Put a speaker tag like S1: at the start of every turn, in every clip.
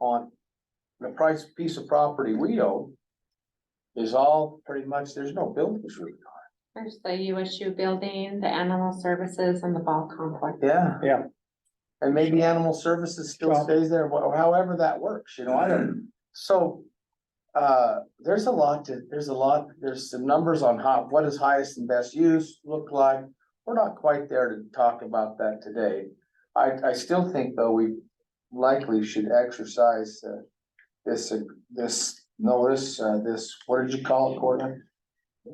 S1: on the price, piece of property we own is all pretty much, there's no buildings really.
S2: There's the USU building, the animal services and the ball complex.
S1: Yeah.
S3: Yeah.
S1: And maybe animal services still
S3: Well-
S1: stays there, wh- however that works, you know, I don't, so. Uh, there's a lot to, there's a lot, there's some numbers on how, what is highest and best use look like. We're not quite there to talk about that today. I, I still think though, we likely should exercise, uh, this, uh, this notice, uh, this, what did you call it, Courtney?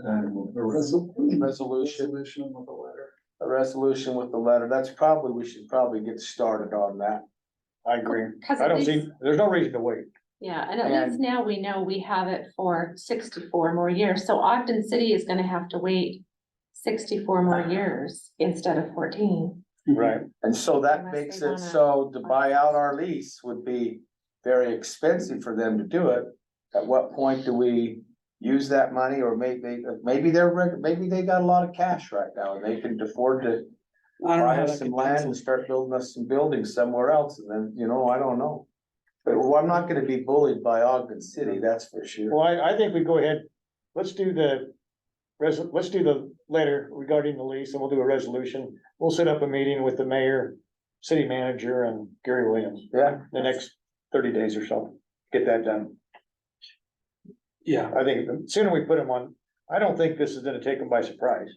S4: And a
S1: Resolution.
S4: resolution with a letter.
S1: a resolution with the letter, that's probably, we should probably get started on that.
S3: I agree.
S2: 'Cause
S3: I
S2: at
S3: don't
S2: least-
S3: see, there's no reason to wait.
S2: Yeah, and at least now we know we have it for sixty-four more years, so Ogden City is gonna have to wait sixty-four more years instead of fourteen.
S3: Right.
S1: And so that
S2: Unless
S1: makes
S2: they
S1: it
S2: wanna-
S1: so to buy out our lease would be very expensive for them to do it. At what point do we use that money or maybe, maybe they're, reg- maybe they got a lot of cash right now and they can afford to
S5: I don't know
S1: buy
S5: how
S1: us
S5: that
S1: some
S5: could
S1: land
S5: pencil.
S1: and start building us some buildings somewhere else and then, you know, I don't know. But well, I'm not gonna be bullied by Ogden City, that's for sure.
S3: Well, I, I think we go ahead, let's do the res, let's do the letter regarding the lease and we'll do a resolution. We'll set up a meeting with the mayor, city manager and Gary Williams
S1: Yeah,
S3: the next thirty days or so. Get that done.
S5: Yeah,
S3: I think the sooner we put them on, I don't think this is gonna take them by surprise.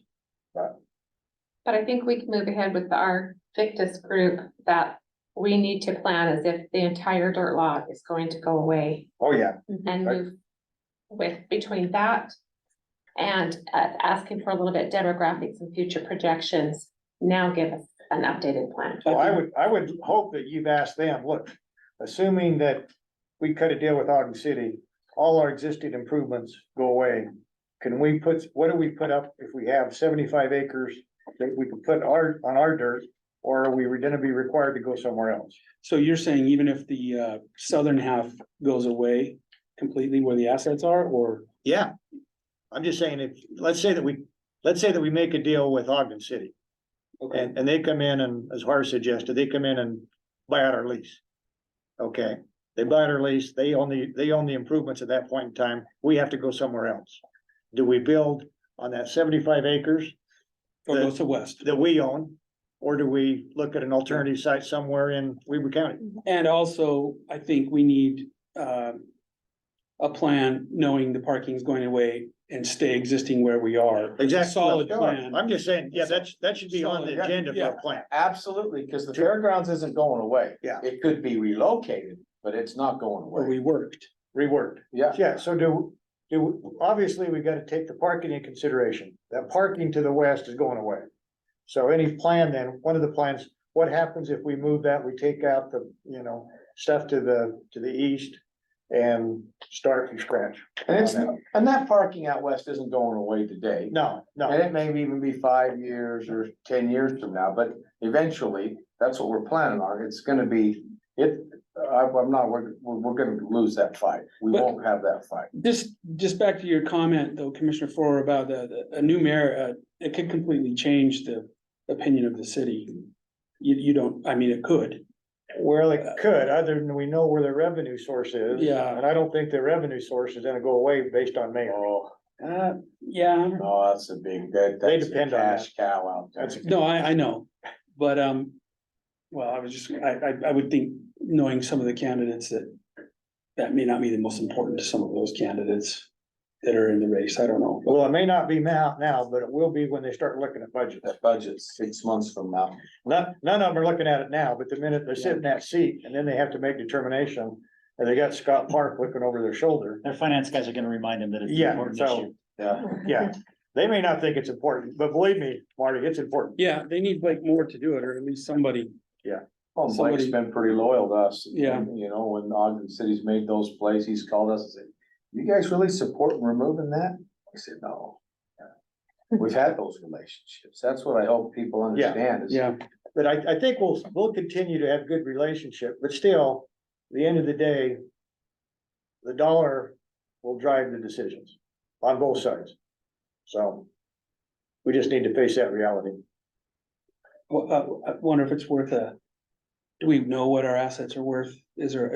S2: But I think we can move ahead with our Victus group that we need to plan as if the entire dirt lot is going to go away
S3: Oh, yeah.
S2: and
S3: Right.
S2: move with, between that and uh, asking for a little bit demographics and future projections, now give us an updated plan.
S3: Well, I would, I would hope that you've asked them, look, assuming that we cut a deal with Ogden City, all our existing improvements go away. Can we put, what do we put up if we have seventy-five acres that we can put our, on our dirt? Or are we gonna be required to go somewhere else?
S5: so you're saying even if the uh southern half goes away completely where the assets are, or?
S3: Yeah, I'm just saying, if, let's say that we, let's say that we make a deal with Ogden City.
S5: Okay,
S3: And, and they come in and, as Harv suggested, they come in and buy out our lease. Okay, they buy out our lease, they own the, they own the improvements at that point in time, we have to go somewhere else. Do we build on that seventy-five acres
S5: or goes to west,
S3: that we own? Or do we look at an alternative site somewhere in Weaver County?
S5: and also, I think we need um. A plan, knowing the parking's going away and stay existing where we are.
S3: Exactly.
S5: Solid plan.
S3: I'm just saying, yeah, that's, that should be on the
S1: Solid,
S3: agenda for
S5: yeah.
S3: a plan.
S1: absolutely, because the fairgrounds isn't going away.
S3: Yeah.
S1: It could be relocated, but it's not going
S5: Where
S1: away.
S5: we worked,
S3: Reworked.
S1: Yeah,
S3: Yeah, so do, do, obviously, we gotta take the parking in consideration. That parking to the west is going away. So any plan then, one of the plans, what happens if we move that, we take out the, you know, stuff to the, to the east and start from scratch?
S1: and it's, and that parking out west isn't going away today.
S3: No,
S1: And
S3: no,
S1: it may even be five years or ten years from now, but eventually, that's what we're planning on. It's gonna be, it, I, I'm not, we're, we're, we're gonna lose that fight. We
S5: But-
S1: won't have that fight.
S5: just, just back to your comment though, Commissioner Farrar, about the, the, a new mayor, uh, it could completely change the. Opinion of the city, you, you don't, I mean, it could,
S3: well, it could, other than we know where the revenue source is.
S5: Yeah.
S3: And I don't think the revenue source is gonna go away based on mayor.
S1: Oh,
S5: uh, yeah,
S1: no, Oh, that's a big, that,
S3: Mm. They
S1: that's a
S3: depend on that.
S1: cash cow out there.
S3: That's-
S5: No, I, I know, but, um, well, I was just, I, I, I would think, knowing some of the candidates that. That may not be the most important to some of those candidates that are in the race, I don't know.
S3: Well, it may not be now, now, but it will be when they start looking at budgets.
S1: That budget's six months from now.
S3: None, none of them are looking at it now, but the minute they sit in that seat and then they have to make determination, and they got Scott Park looking over their shoulder.
S6: Their finance guys are gonna remind them that it's. an
S3: Yeah,
S6: important
S3: so-
S6: issue.
S1: Yeah,
S3: Yeah, they may not think it's important, but believe me, Marty, it's important.
S5: Yeah, they need Blake Moore to do it, or at least somebody,
S1: well, Blake's
S5: Somebody-
S1: Oh, been pretty loyal to us.
S5: Yeah.
S1: You know, when Ogden City's made those plays, he's called us and said, you guys really support removing that? I said, no. We've had those relationships. That's what I hope people
S3: Yeah,
S1: understand is
S5: yeah,
S3: But I, I think we'll, we'll continue to have good relationship, but still, at the end of the day, the dollar will drive the decisions on both sides. So we just need to face that reality.
S5: Well, uh, I wonder if it's worth a. Do we know what our assets are worth, is there,